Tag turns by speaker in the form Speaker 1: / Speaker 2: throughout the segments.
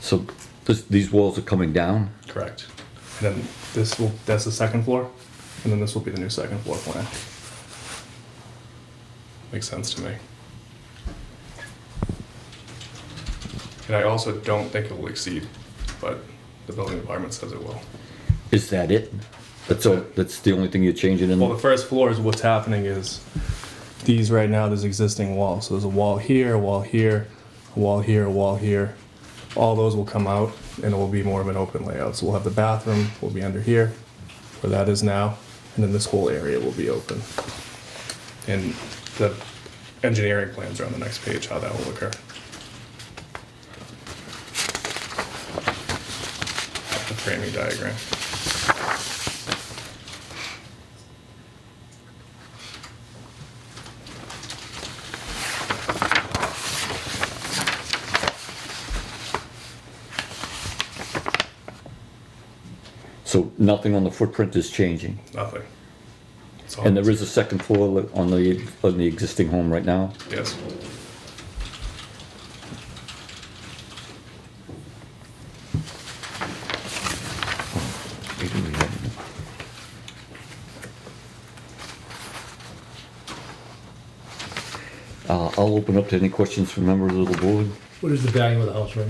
Speaker 1: So this, these walls are coming down?
Speaker 2: Correct. And then this will, that's the second floor, and then this will be the new second floor plan. Makes sense to me. And I also don't think it will exceed, but the building department says it will.
Speaker 1: Is that it? That's all, that's the only thing you're changing in?
Speaker 2: Well, the first floor is what's happening is these right now, there's existing walls. So there's a wall here, a wall here, a wall here, a wall here. All those will come out and it will be more of an open layout. So we'll have the bathroom, will be under here, where that is now, and then this whole area will be open. And the engineering plans are on the next page, how that will occur. The framing diagram.
Speaker 1: So nothing on the footprint is changing?
Speaker 2: Nothing. It's all-
Speaker 1: And there is a second floor li- on the, on the existing home right now?
Speaker 2: Yes.
Speaker 1: Uh, I'll open up to any questions from members of the board.
Speaker 3: What is the value of the house right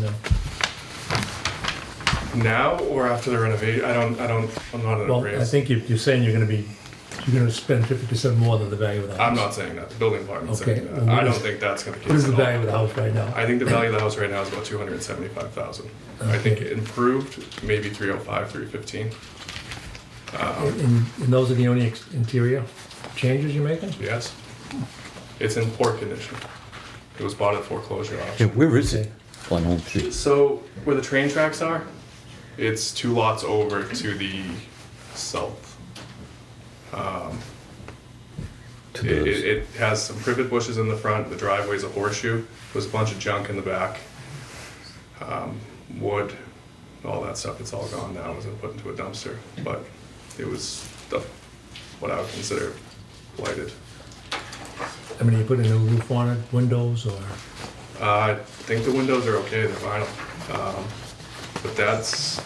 Speaker 3: now?
Speaker 2: Now or after the renovation? I don't, I don't, I'm not in a
Speaker 3: Well, I
Speaker 2: race.
Speaker 3: think you- you're saying you're gonna be, you're gonna spend fifty percent more than the value of the house.
Speaker 2: I'm not saying that, the building department's
Speaker 3: Okay,
Speaker 2: saying that.
Speaker 3: and what
Speaker 2: I don't
Speaker 3: is-
Speaker 2: think that's gonna be.
Speaker 3: What is the value of the house right now?
Speaker 2: I think the value of the house right now is about two hundred and seventy-five thousand. I think
Speaker 3: Okay.
Speaker 2: it improved, maybe three oh five, three fifteen,
Speaker 3: And, and those are the only ex- interior changes you're making?
Speaker 2: yes. It's in poor condition. It was bought at foreclosure
Speaker 1: Yeah,
Speaker 2: auction.
Speaker 1: where is it?
Speaker 3: Okay.
Speaker 1: On Home Street?
Speaker 2: So where the train tracks are, it's two lots over to the south.
Speaker 1: To
Speaker 2: It, it,
Speaker 1: the-
Speaker 2: it has some privet bushes in the front. The driveway's a horseshoe. There's a bunch of junk in the back. Um, wood, all that stuff. It's all gone now. It was put into a dumpster, but it was the, what I would consider blighted.
Speaker 3: I mean, you put a new roof on it, windows, or,
Speaker 2: Uh, I think the windows are okay. They're vinyl, um, but that's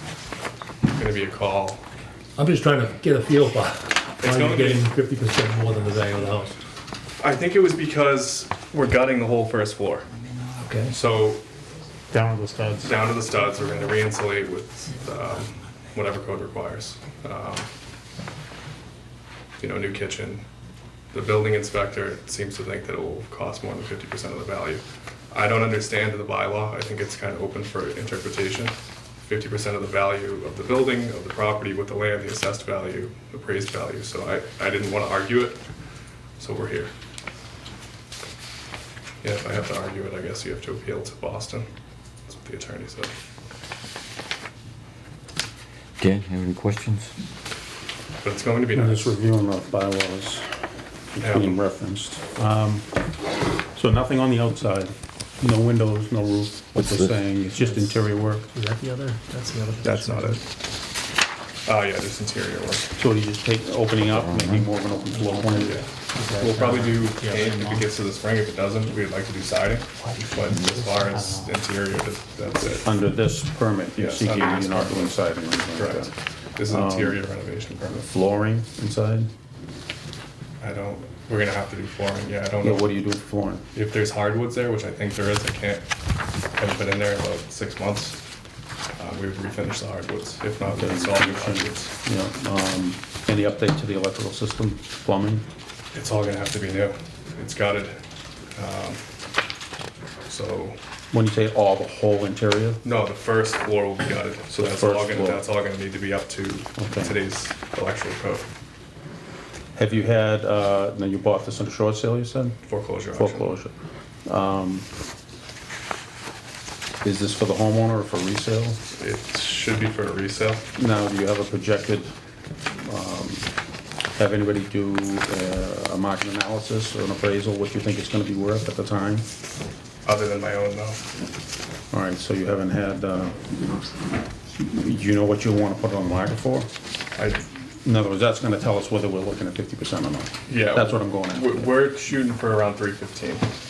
Speaker 2: going to be a call.
Speaker 3: I'm just trying to get a feel for why
Speaker 2: gonna
Speaker 3: you're
Speaker 2: be-
Speaker 3: getting fifty percent more than the value of the house.
Speaker 2: I think it was because we're gutting the whole first floor.
Speaker 3: Okay,
Speaker 2: So
Speaker 4: Down with the studs.
Speaker 2: down to the studs, we're gonna re-insulate with um, whatever code requires. Um, You know, new kitchen. The building inspector seems to think that it will cost more than fifty percent of the value. I don't understand the bylaw, I think it's kind of open for interpretation. Fifty percent of the value of the building, of the property, with the land, the assessed value, appraised value, so I, I didn't want to argue it, so we're here. Yeah, if I have to argue it, I guess you have to appeal to Boston. That's what the attorney said.
Speaker 1: Dan, have any questions?
Speaker 2: But it's going to be
Speaker 4: I'm
Speaker 2: nice.
Speaker 4: just reviewing the bylaws being referenced. Um, So nothing on the outside, no windows, no roof, what
Speaker 1: What's
Speaker 4: they're
Speaker 1: this?
Speaker 4: saying, it's just interior work.
Speaker 3: is that the other, that's the other?
Speaker 2: That's not it. Oh, yeah, just interior work.
Speaker 4: So you just take, opening up, making more of an open floor plan.
Speaker 2: Yeah. We'll probably do paint if it gets to the spring. If it doesn't, we'd like to do siding. But as far as interior, that- that's it.
Speaker 4: Under this permit, you're
Speaker 2: Yes,
Speaker 4: seeking,
Speaker 2: under
Speaker 4: you're
Speaker 2: this
Speaker 4: not
Speaker 2: permit.
Speaker 4: doing siding or anything like
Speaker 2: Correct.
Speaker 4: that.
Speaker 2: This is an interior renovation permit.
Speaker 4: Flooring inside?
Speaker 2: I don't, we're gonna have to do flooring. Yeah, I don't
Speaker 4: Yeah, what
Speaker 2: know.
Speaker 4: do you do with flooring?
Speaker 2: If there's hardwoods there, which I think there is, I can't, haven't been in there in about six months. Uh, we would refinish the hardwoods. If not, we'd install new hardwoods.
Speaker 4: You know, um, any update to the electrical system, plumbing?
Speaker 2: It's all gonna have to be new. It's gutted. Um, So,
Speaker 4: When you say all, the whole interior?
Speaker 2: no, the first floor will be gutted, so
Speaker 4: The
Speaker 2: that's all
Speaker 4: first
Speaker 2: gonna,
Speaker 4: floor.
Speaker 2: that's all gonna need to be up to
Speaker 4: Okay.
Speaker 2: today's electrical code
Speaker 4: Have you had, uh, now you bought this on a short sale, you said?
Speaker 2: foreclosure auction.
Speaker 4: Foreclosure. Um, Is this for the homeowner or for resale?
Speaker 2: It should be for a resale.
Speaker 4: Now, do you have a projected, um, have anybody do uh, a market analysis or an appraisal, what you think it's gonna be worth at the time?
Speaker 2: Other than my own, though,
Speaker 4: All right, so you haven't had, uh, do you know what you wanna put it on the market for?
Speaker 2: I,
Speaker 4: In other words, that's gonna tell us whether we're looking at fifty percent or not.
Speaker 2: yeah.
Speaker 4: That's what I'm going at.
Speaker 2: We're, we're shooting for around three fifteen.